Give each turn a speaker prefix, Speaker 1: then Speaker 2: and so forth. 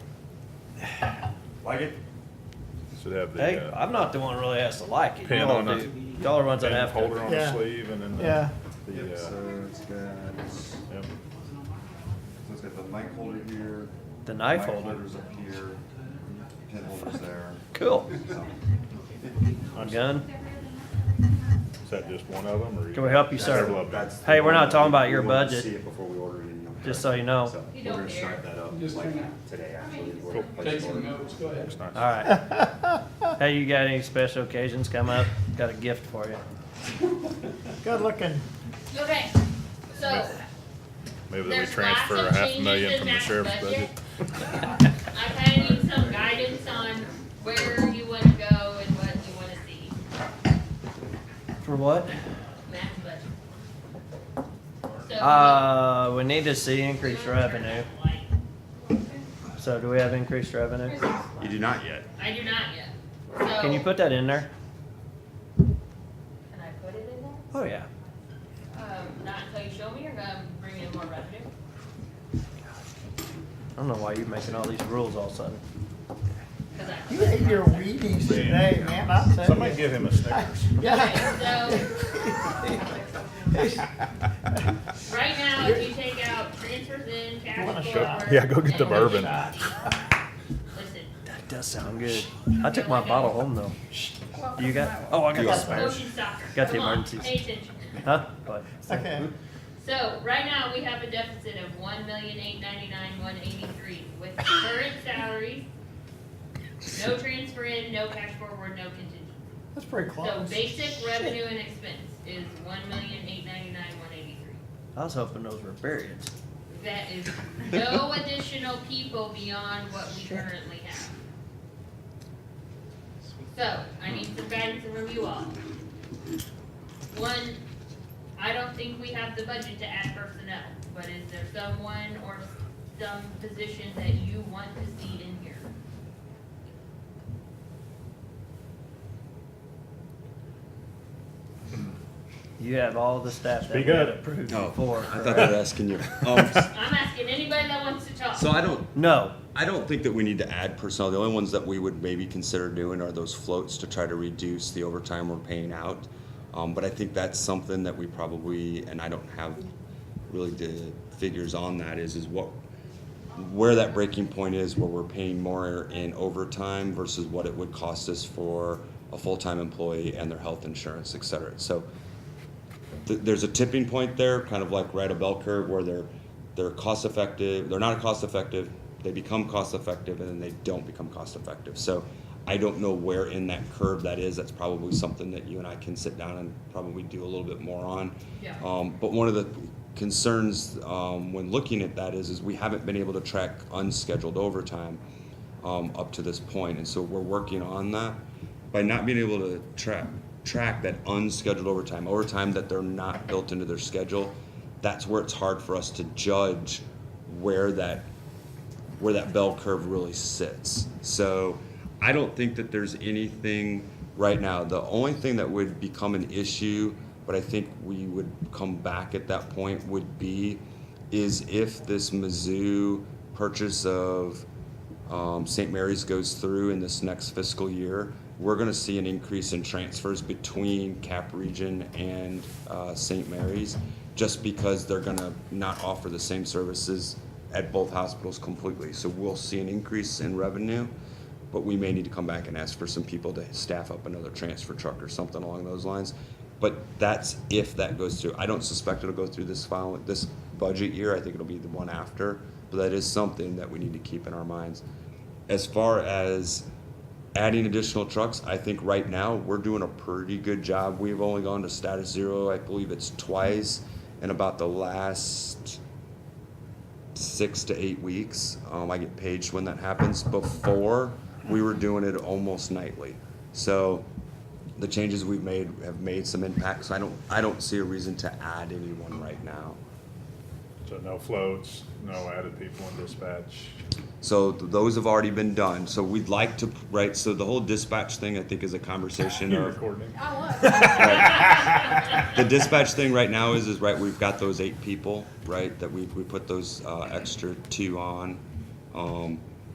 Speaker 1: Like it?
Speaker 2: Should have
Speaker 3: Hey,
Speaker 2: the, uh,
Speaker 3: I'm not the one really has to like it.
Speaker 2: Pin on
Speaker 3: Y'all do. Y'all runs on
Speaker 2: pin
Speaker 3: half.
Speaker 2: holder on the
Speaker 4: Yeah.
Speaker 2: sleeve and then
Speaker 4: Yeah.
Speaker 2: the,
Speaker 1: Yep,
Speaker 2: the, uh,
Speaker 1: so it's got, so
Speaker 2: yep.
Speaker 1: it's got the knife holder here.
Speaker 3: The knife holder?
Speaker 1: Holder's up here, pin holder's there.
Speaker 3: Cool.
Speaker 1: So,
Speaker 3: On gun.
Speaker 2: Is that just one of them or? you-
Speaker 3: Can we help you,
Speaker 2: Several
Speaker 3: sir?
Speaker 2: of them.
Speaker 1: that's
Speaker 3: Hey,
Speaker 1: the
Speaker 3: we're not
Speaker 1: one
Speaker 3: talking about
Speaker 1: we
Speaker 3: your
Speaker 1: wanted to
Speaker 3: budget.
Speaker 1: See it before we order it. you know.
Speaker 3: Just so you know.
Speaker 1: So We're gonna start that up like today, actually. is what we're
Speaker 5: Take some
Speaker 1: planning
Speaker 5: notes, go ahead.
Speaker 2: It's nice.
Speaker 3: All right. Hey, you got any special occasions come up? Got a gift for you.
Speaker 4: Good looking.
Speaker 6: Okay, so
Speaker 2: Maybe that we
Speaker 6: there's lots
Speaker 2: transfer a
Speaker 6: of
Speaker 2: half a million
Speaker 6: changes
Speaker 2: from
Speaker 6: in
Speaker 2: the
Speaker 6: that
Speaker 2: sheriff's budget.
Speaker 6: budget. I kind of need some guidance on where you want to go and what you want to see
Speaker 3: For what?
Speaker 6: in that budget. So,
Speaker 3: Uh, we need to see increased revenue. So do we have increased revenue?
Speaker 1: for. You do not yet.
Speaker 6: I do not yet. So,
Speaker 3: Can you put that in there?
Speaker 6: Can I put it in there?
Speaker 3: Oh, yeah.
Speaker 6: Um, not until you show me, or um, bring in more revenue.
Speaker 3: I don't know why you're making all these rules all of a sudden.
Speaker 6: 'Cause I-
Speaker 4: You ate your Wheaties today, man. I'll tell you.
Speaker 2: Somebody give him a Snickers.
Speaker 4: Yeah.
Speaker 6: Okay, so. Right now, if you take out transfers in,
Speaker 4: You want a
Speaker 6: cash
Speaker 4: shot?
Speaker 6: forward.
Speaker 2: Yeah, go get the
Speaker 6: and-
Speaker 2: bourbon.
Speaker 6: Listen,
Speaker 3: That does sound good. I took my bottle home, though. Do you got? Oh, I got the spare.
Speaker 6: motion soccer.
Speaker 3: Got the
Speaker 6: Come on,
Speaker 3: emergencies.
Speaker 6: Pay attention.
Speaker 3: Huh? But
Speaker 4: Okay.
Speaker 6: So, right now, we have a deficit of one million eight ninety-nine, one eighty-three with current salaries. No transfer in, no cash forward, no contingency.
Speaker 4: That's pretty
Speaker 6: So
Speaker 4: close.
Speaker 6: basic revenue and expense is one million eight ninety-nine, one eighty-three.
Speaker 3: I was hoping those were periods.
Speaker 6: That is no additional people beyond what we currently have. So, I need some guidance from you all. One, I don't think we have the budget to add personnel, but is there someone or some position that you want to see in here?
Speaker 3: You have all the staff that
Speaker 2: Speak
Speaker 3: we
Speaker 2: up.
Speaker 3: had approved
Speaker 7: Oh,
Speaker 3: before.
Speaker 7: I thought they were asking you. Um,
Speaker 6: I'm asking anybody that wants to talk.
Speaker 7: so I don't,
Speaker 3: No,
Speaker 7: I don't think that we need to add personnel. The only ones that we would maybe consider doing are those floats to try to reduce the overtime we're paying out. Um, but I think that's something that we probably, and I don't have really the figures on that is, is what, where that breaking point is where we're paying more in overtime versus what it would cost us for a full-time employee and their health insurance, et cetera. So th- there's a tipping point there, kind of like right a bell curve where they're they're cost effective, they're not cost effective, they become cost effective, and then they don't become cost effective. So I don't know where in that curve that is. That's probably something that you and I can sit down and probably do a little bit more on.
Speaker 6: Yeah.
Speaker 7: Um, but one of the concerns um, when looking at that is is we haven't been able to track unscheduled overtime um, up to this point, and so we're working on that. By not being able to track track that unscheduled overtime, overtime that they're not built into their schedule, that's where it's hard for us to judge where that where that bell curve really sits. So I don't think that there's anything right now. The only thing that would become an issue, but I think we would come back at that point, would be is if this Mizzou purchase of um, St. Mary's goes through in this next fiscal year, we're going to see an increase in transfers between Cap Region and uh, St. Mary's just because they're going to not offer the same services at both hospitals completely. So we'll see an increase in revenue, but we may need to come back and ask for some people to staff up another transfer truck or something along those lines. But that's if that goes through. I don't suspect it'll go through this file, this budget year. I think it'll be the one after. But that is something that we need to keep in our minds. As far as adding additional trucks, I think right now we're doing a pretty good job. We've only gone to status zero, I believe it's twice in about the last six to eight weeks. Um, I get paged when that happens. Before, we were doing it almost nightly. So the changes we've made have made some impacts. I don't, I don't see a reason to add anyone right now.
Speaker 2: So no floats, no added people in dispatch.
Speaker 7: So th- those have already been done. So we'd like to, right, so the whole dispatch thing, I think, is a conversation
Speaker 2: You
Speaker 7: of.
Speaker 2: recording it?
Speaker 7: the dispatch thing right now is, is right, we've got those eight people, right, that we, we put those, uh, extra two on. Um,